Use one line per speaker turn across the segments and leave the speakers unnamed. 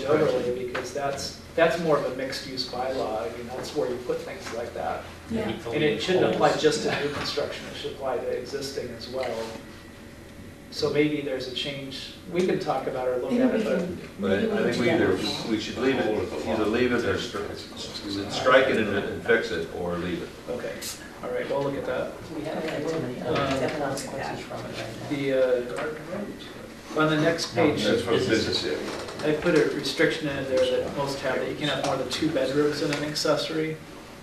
village overlay, because that's, that's more of a mixed-use bylaw, I mean, that's where you put things like that.
Yeah.
And it shouldn't apply just to new construction, it should apply to existing as well. So maybe there's a change, we can talk about or look
Maybe
at
we
it, but
can, maybe
But
we
I
can
think
do
we either,
that.
we should leave it, either leave it or stri- strike it and- and fix it, or leave it.
Okay, all right, we'll look at that.
We have that too many
Um,
other consequences from it right
The, uh, on the next page,
That's for the
is-
business area.
I put a restriction in there that most have, that you can have more than two bedrooms in an accessory.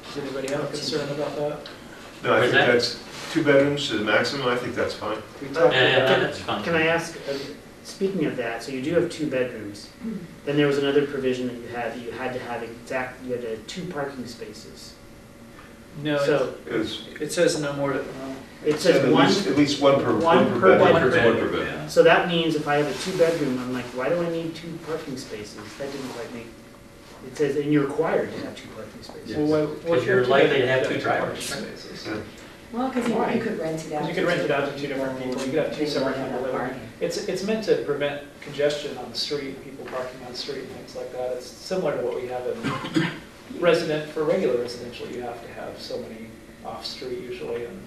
Does anybody have a concern about that?
No, I
Where's
think
that?
that's two bedrooms to the maximum, I think that's fine.
We
Yeah,
talked
yeah,
about,
that's fine.
Can I ask, uh, speaking of that, so you do have two bedrooms,
Mm-hmm.
then there was another provision that you had, that you had to have exact, you had to have two parking spaces.
no, it-
So
It was,
it says no more than,
it
at
says one,
least, at least one per,
one
one per
per
bedroom.
one
One
bedroom.
per bedroom.
yeah.
so that means if I have a two-bedroom, I'm like, why do I need two parking spaces? That didn't quite make, it says, and you're required to have two parking spaces.
Well, why- why
Because you're
two
likely to
bedrooms?
have
Yeah,
two drivers.
parking spaces.
Yeah.
Well, because you you could rent it out.
You could rent it out to two different people, you could have two
They
separate
don't have
people
that
living.
parking.
It's, it's meant to prevent congestion on the street, people parking on the street and things like that. It's similar to what we have in resident, for regular residential, you have to have so many off-street usually and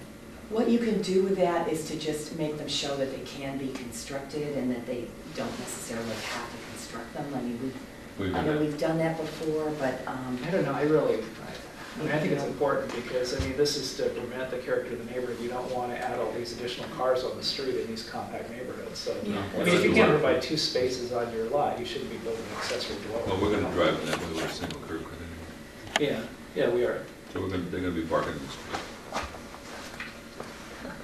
What you can do with that is to just make them show that they can be constructed and that they don't necessarily have to construct them. I mean, we,
We've
I know
been-
we've done that before, but, um,
I don't know, I really, I- I mean, I think it's important because, I mean, this is to prevent the character of the neighborhood. You don't want to add all these additional cars on the street in these compact neighborhoods, so.
Yeah.
I mean, if you can't provide two spaces on your lot, you shouldn't be building an accessory dwelling.
Well, we're gonna drive in that way with a single curb cut anyway.
Yeah, yeah, we are.
So we're gonna, they're gonna be parking this way.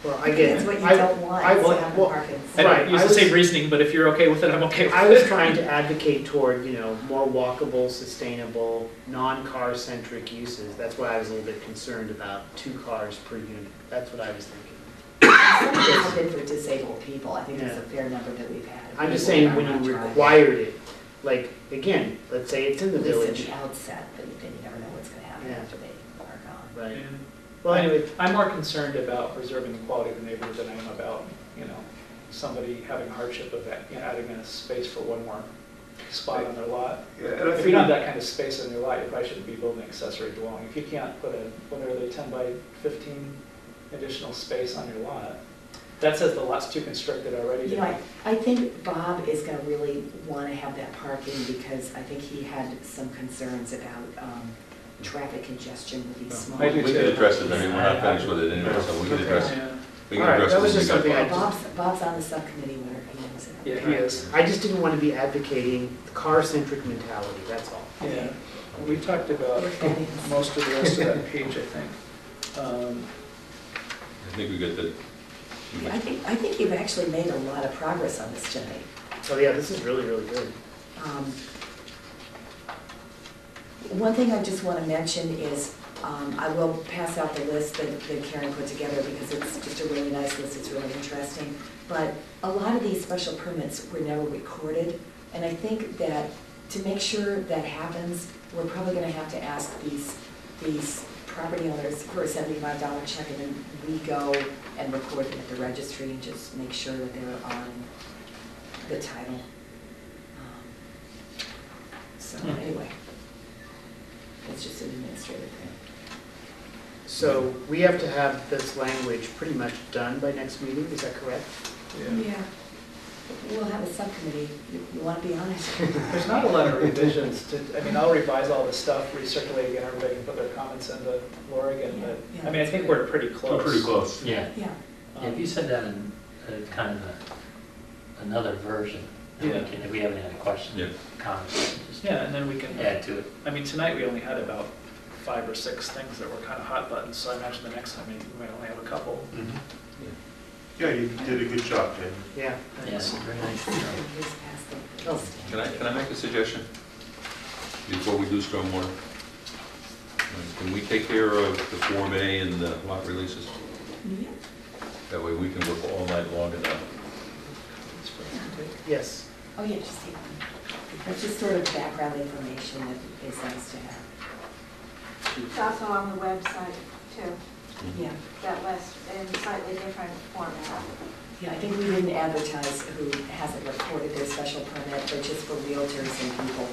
Well, I get
it's
it.
what you
I-
don't want,
I-
is to
well,
have the
well,
parking.
I
Right,
don't use
I
the same
was-
reasoning, but if you're okay with it, I'm okay with it.
I was trying to advocate toward, you know, more walkable, sustainable, non-car centric uses. That's why I was a little bit concerned about two cars per unit. That's what I was thinking.
Some of them have been for disabled people, I think there's a fair number that we've had.
I'm just
People
saying
are
when
not
you
driving.
required it, like, again, let's say it's in the
At least at
village.
the outset, but then you never know what's gonna happen
Yeah.
after they are gone.
Right.
And
Well, anyway,
I'm more concerned about preserving the quality of the neighborhood than I am about, you know, somebody having hardship of that, you know, adding in a space for one more spot on their lot.
Yeah, and I
If you
think-
don't have that kind of space on your lot, you probably shouldn't be building accessory dwelling. If you can't put a, what are they, ten by fifteen additional space on your lot, that says the lot's too constricted already.
You know, I, I think Bob is gonna really wanna have that parking because I think he had some concerns about, um, traffic congestion with these small.
I do
We
too.
can address it, I mean, we're not finished with it anyway, so we can address,
Yeah,
we can
All right,
address
that
it when
was
we
just
got
something I-
back.
Bob's, Bob's on the subcommittee where he knows it.
Yeah, he is.
I just didn't want to be advocating the car centric mentality, that's all.
Yeah, we talked about most of the rest of that page, I think. Um,
I think we got the,
I think, I think you've actually made a lot of progress on this tonight.
So yeah, this is really, really good.
Um, One thing I just want to mention is, um, I will pass out the list that that Karen put together because it's just a really nice list, it's really interesting. But a lot of these special permits were never recorded, and I think that to make sure that happens, we're probably going to have to ask these, these property owners for a seventy-five dollar check, and then we go and record them at the registry and just make sure that they're on the title. Um, So
Hmm.
anyway, it's just an administrative thing.
So we have to have this language pretty much done by next meeting, is that correct?
Yeah. We'll have a subcommittee, you you want to be on it?
There's not a lot of revisions to, I mean, I'll revise all this stuff, recirculate again, everybody can put their comments into Laura again, but, I mean, I think we're pretty
We're
close. Um,
pretty close.
Yeah,
Yeah,
Yeah, if you send out an- a kind of a- another version, and
Yeah.
we can, if we have any other
Yeah.
questions, comments, just
Yeah, and then we can,
add to it.
I mean, tonight we only had about five or six things that were kind of hot buttons, so I imagine the next time we we might only have a couple.
Mm-hmm. Yeah, you did a good job, Jamie.
Yeah.
Yes, very nice.
here's past the.
Oh.
can I, can I make a suggestion? Before we do stormwater? Can we take care of the Form A and the lot releases?
Yeah.
That way we can work all night long and, uh,
Yes.
Oh, yeah, just take one. That's just sort of background information that is nice to have.
It's also on the website too,
Yeah,
that list, in slightly different format.
yeah, I think we didn't advertise who hasn't recorded their special permit, but just for realtors and people